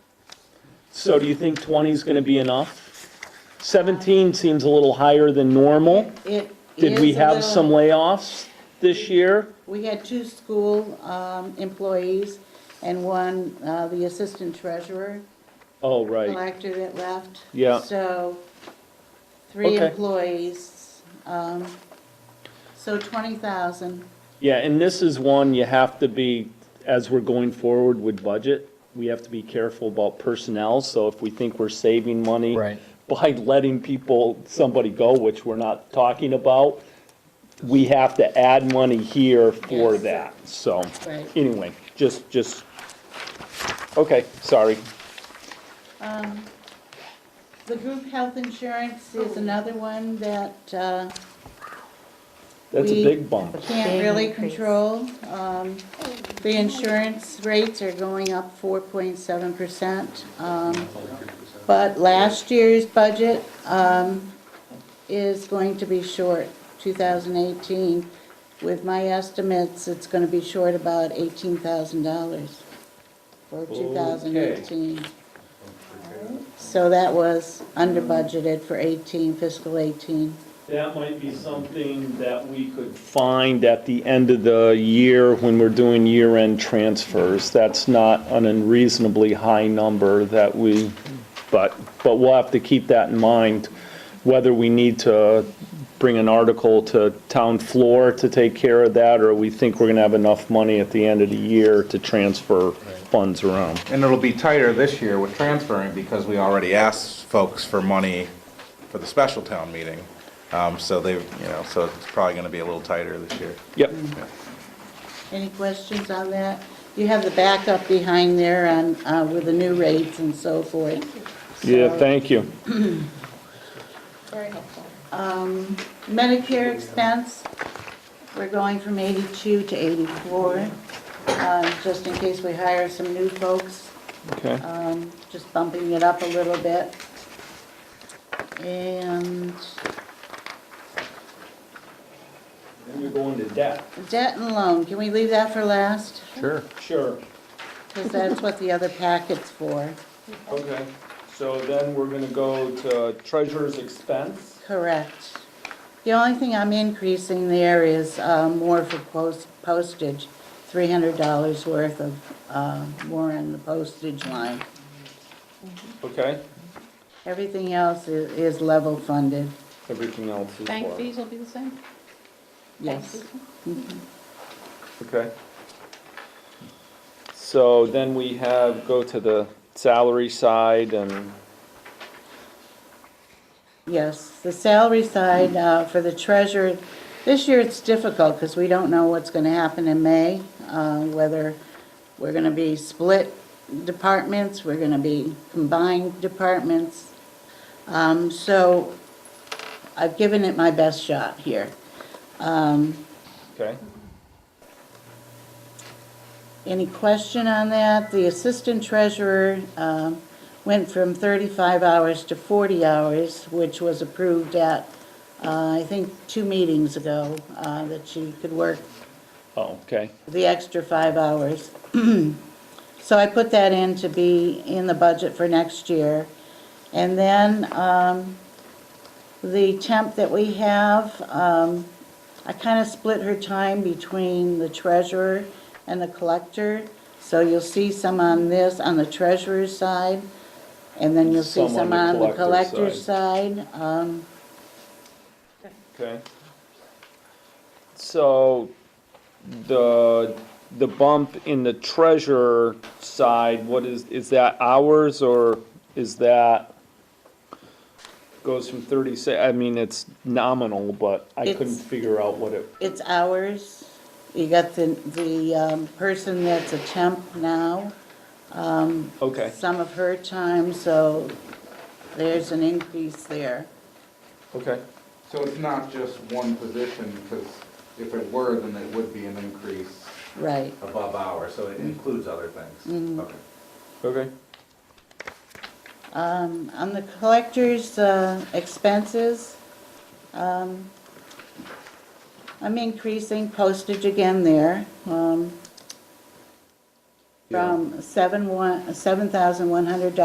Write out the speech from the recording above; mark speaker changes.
Speaker 1: So do you think 20 is going to be enough? 17 seems a little higher than normal.
Speaker 2: It
Speaker 1: Did we
Speaker 2: is a
Speaker 1: have
Speaker 2: little-
Speaker 1: some layoffs this year?
Speaker 2: We had two school um, employees and one, uh, the assistant treasurer
Speaker 1: Oh, right.
Speaker 2: collector that left.
Speaker 1: Yeah.
Speaker 2: So three
Speaker 1: Okay.
Speaker 2: employees, um, so 20,000.
Speaker 1: Yeah, and this is one you have to be, as we're going forward with budget, we have to be careful about personnel. So if we think we're saving money
Speaker 3: Right.
Speaker 1: by letting people, somebody go, which we're not talking about, we have to add money here for
Speaker 2: Yes.
Speaker 1: that. So
Speaker 2: Right.
Speaker 1: anyway, just, just, okay, sorry.
Speaker 2: The group health insurance is another one that uh,
Speaker 1: That's a
Speaker 2: We-
Speaker 1: big bump.
Speaker 2: can't
Speaker 4: Big
Speaker 2: really
Speaker 4: increase.
Speaker 2: control. Um, The insurance rates are going up 4.7%. um, But last year's budget um, is going to be short, 2018. With my estimates, it's going to be short about $18,000 for 2018. So that was under budgeted for 18, fiscal 18.
Speaker 1: That might be something that we could find at the end of the year when we're doing year-end transfers. That's not an unreasonably high number that we, but, but we'll have to keep that in mind, whether we need to bring an article to town floor to take care of that, or we think we're going to have enough money at the end of the year to transfer funds around.
Speaker 5: And it'll be tighter this year with transferring because we already asked folks for money for the special town meeting. Um, so they've, you know, so it's probably gonna be a little tighter this year.
Speaker 1: Yep.
Speaker 2: Any questions on that? You have the backup behind there on, uh, with the new rates and so forth.
Speaker 1: Yeah, thank you.
Speaker 2: Medicare expense, we're going from 82 to 84, uh, just in case we hire some new folks,
Speaker 1: Okay.
Speaker 2: um, just bumping it up a little bit. And
Speaker 1: Then you're going to debt.
Speaker 2: debt and loan, can we leave that for last?
Speaker 5: Sure.
Speaker 1: Sure.
Speaker 2: Because that's what the other packet's for.
Speaker 1: Okay, so then we're gonna go to treasurer's expense.
Speaker 2: Correct. The only thing I'm increasing there is uh, more for post- postage, $300 worth of uh, more on the postage line.
Speaker 1: Okay,
Speaker 2: Everything else i- is level funded,
Speaker 1: everything else is
Speaker 6: Bank
Speaker 1: lower.
Speaker 6: fees will be the same?
Speaker 2: yes.
Speaker 1: Okay. So then we have, go to the salary side and,
Speaker 2: Yes, the salary side uh, for the treasurer, this year it's difficult because we don't know what's going to happen in May, uh, whether we're going to be split departments, we're going to be combined departments. Um, So I've given it my best shot here.
Speaker 1: okay,
Speaker 2: Any question on that? The assistant treasurer um, went from 35 hours to 40 hours, which was approved at, uh, I think, two meetings ago, uh, that she could work
Speaker 1: oh, okay,
Speaker 2: the extra five hours. So I put that in to be in the budget for next year. And then um, the temp that we have, um, I kind of split her time between the treasurer and the collector. So you'll see some on this, on the treasurer's side, and then you'll see some on the collector's side. Um,
Speaker 1: okay. So the, the bump in the treasurer side, what is, is that hours or is that goes from thirty-six, I mean, it's nominal, but I couldn't
Speaker 2: It's-
Speaker 1: figure out what it
Speaker 2: It's hours. You got the, the um, person that's a temp now.
Speaker 1: Okay,
Speaker 2: some of her time, so there's an increase there.
Speaker 1: okay,
Speaker 5: So it's not just one position, because if it were, then it would be an increase
Speaker 2: Right.
Speaker 5: above ours, so it includes other things. Okay.
Speaker 1: okay.
Speaker 2: Um, On the collector's uh, expenses, um, I'm increasing postage again there um, from seven one seven thousand one hundred dollars